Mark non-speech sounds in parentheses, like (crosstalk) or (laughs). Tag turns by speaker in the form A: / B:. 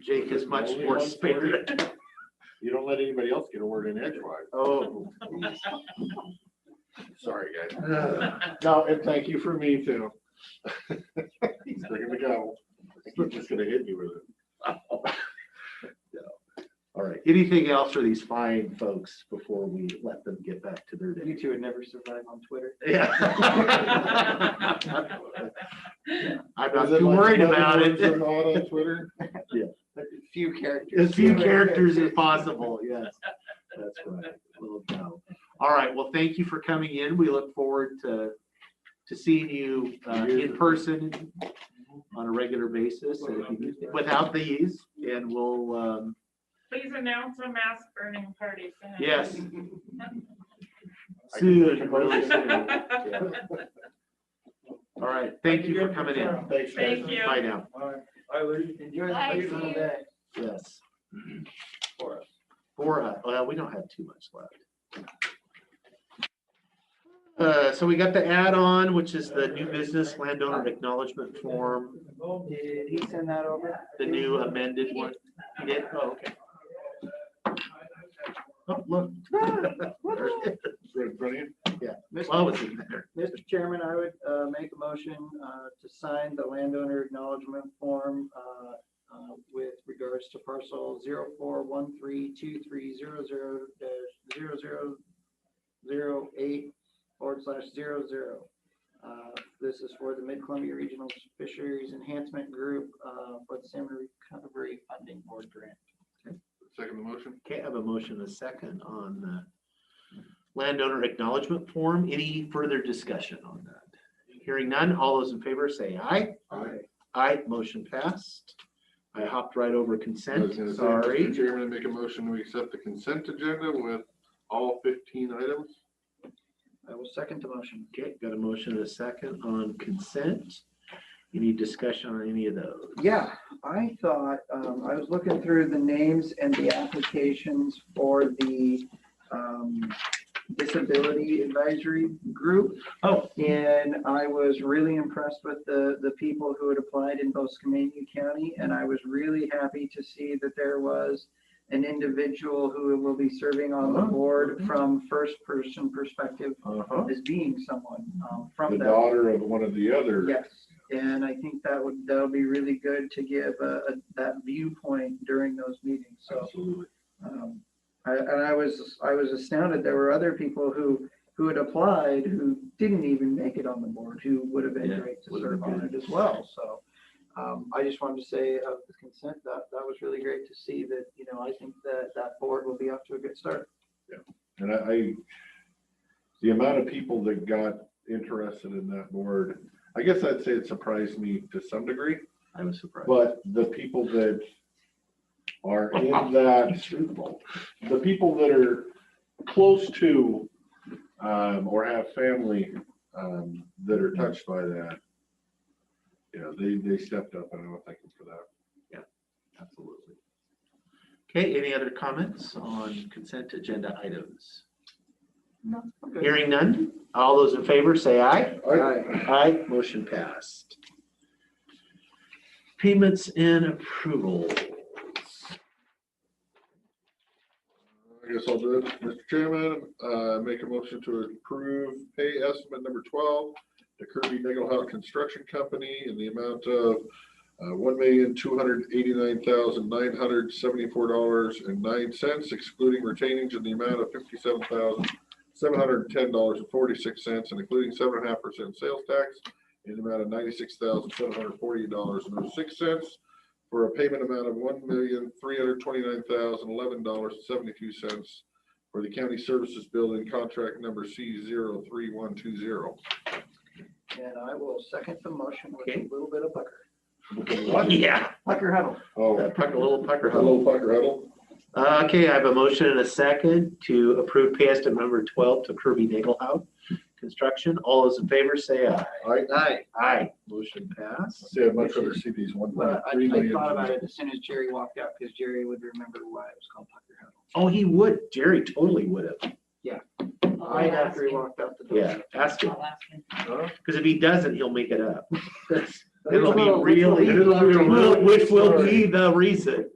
A: Jake is much more spared.
B: (laughs)
C: (laughs) You don't let anybody else get a word in edgewise.
A: Oh,
C: Sorry, guys. (laughs) No, and thank you for me too. He's bringing the gavel. I'm just gonna hit you with it.
A: all right. Anything else for these fine folks before we let them get back to their day?
B: You two would never survive on Twitter. (laughs)
A: Yeah. (laughs) I'm not
C: Is it
A: too
C: like
A: worried
C: another
A: about
C: word
A: it. (laughs)
C: for not on Twitter?
B: Few characters.
A: As few characters as possible, yes. That's right. We'll go. All right, well, thank you for coming in. We look forward to, to seeing you uh, in person on a regular basis and if you- without these, and we'll, um,
D: Please announce a mass burning party. soon.
A: yes.
C: (laughs) I can make a
A: Soon, (laughs) really
C: motion.
A: soon. All right, thank you for coming in.
C: Thanks, guys.
D: Thank you.
A: Bye now,
B: I would enjoy the
D: Bye,
B: place all
D: you.
B: day
A: yes.
B: for us.
A: Four, uh, well, we don't have too much left. Uh, so we got the add-on, which is the new business landowner acknowledgement form,
B: Did he send that over?
A: the new uh, amended one. You did? Oh, okay. Oh, look. (laughs) There it is.
C: Right in front of you.
A: Well, it's in there.
B: Mr. Chairman, I would uh, make a motion uh, to sign the landowner acknowledgement form uh, uh, with regards to parcel 04132300-0008 forward slash 00. Uh, This is for the Mid-Columbia Regional Fisheries Enhancement Group uh, for the Salmon Recovery Funding Board Grant.
C: Second the motion?
A: Okay, I have a motion, and a second on the landowner acknowledgement form. Any further discussion on that? Hearing none, all those in favor say aye.
C: Aye.
A: Aye, motion passed. I hopped right over
C: I was
A: consent,
C: gonna say, Mr.
A: sorry.
C: Chairman, I make a motion, we accept the consent agenda with all fifteen items.
B: I will second the motion.
A: Okay, got a motion and a second on consent. Any discussion on any of those?
B: Yeah, I thought, um, I was looking through the names and the applications for the, um, disability advisory group.
A: Oh.
B: And I was really impressed with the, the people who had applied in both Skamania County. And I was really happy to see that there was an individual who will be serving on the
A: Uh-huh.
B: board from first person perspective
A: Uh-huh.
B: as being someone, um, from
C: The
B: that.
C: daughter of one of the other.
B: Yes, and I think that would, that would be really good to give uh, a- that viewpoint during those meetings, so.
A: Absolutely.
B: um, I- And I was, I was astounded, there were other people who, who had applied, who didn't even make it on the board, who would have
A: Yeah,
B: been great to
A: would have been
B: serve on
A: good.
B: it as well, so. um, I just wanted to say of the consent, that, that was really great to see that, you know, I think that that board will be off to a good start.
C: And I, I- the amount of people that got interested in that board, I guess I'd say it surprised me to some degree,
A: I was surprised.
C: but the people that are in that, the people that are close to, um, or have family, um, that are touched by that, you know, they, they stepped up and I want to thank them for that.
A: Absolutely. Okay, any other comments on consent agenda items?
B: No, I'm good.
A: Hearing none, all those in favor say aye.
B: Aye.
A: Aye, motion passed. Payments and approval.
C: I guess I'll do it. Mr. Chairman, uh, make a motion to approve pay estimate number twelve to Kirby Nagelhaus Construction Company in the amount of uh, one million, two hundred eighty-nine thousand, nine hundred seventy-four dollars and nine cents, excluding retainings in the amount of fifty-seven thousand, seven hundred ten dollars and forty-six cents, and including seven and a half percent sales tax in the amount of ninety-six thousand, seven hundred forty dollars and oh six cents for a payment amount of one million, three hundred twenty-nine thousand, eleven dollars, seventy-two cents for the county services building contract number C zero three one two zero.
B: And I will second the motion with
A: Okay.
B: a little bit of pucker.
A: Yeah. Uh,
B: Pucker huddle.
C: Oh,
A: Pucker, little pucker hole.
C: hello, Pucker Huddle.
A: Okay, I have a motion and a second to approve pay estimate number twelve to Kirby Nagelhaus Construction. All those in favor say aye.
C: I,
B: Aye.
A: Aye. Motion passed.
C: say I'd much rather see these one.
B: Well, I,
C: three
B: I
C: million.
B: thought about it as soon as Jerry walked out, because Jerry would remember why it was called Pucker Huddle.
A: Oh, he would. Jerry totally would have.
D: I'll
B: Right
D: ask
B: after he
D: him.
B: walked out the door.
A: Yeah, ask him.
D: I'll ask him.
A: Because if he doesn't, he'll make it up. (laughs)
B: That's-
A: It'll be really,
C: It'll be a real
A: which will be the reason.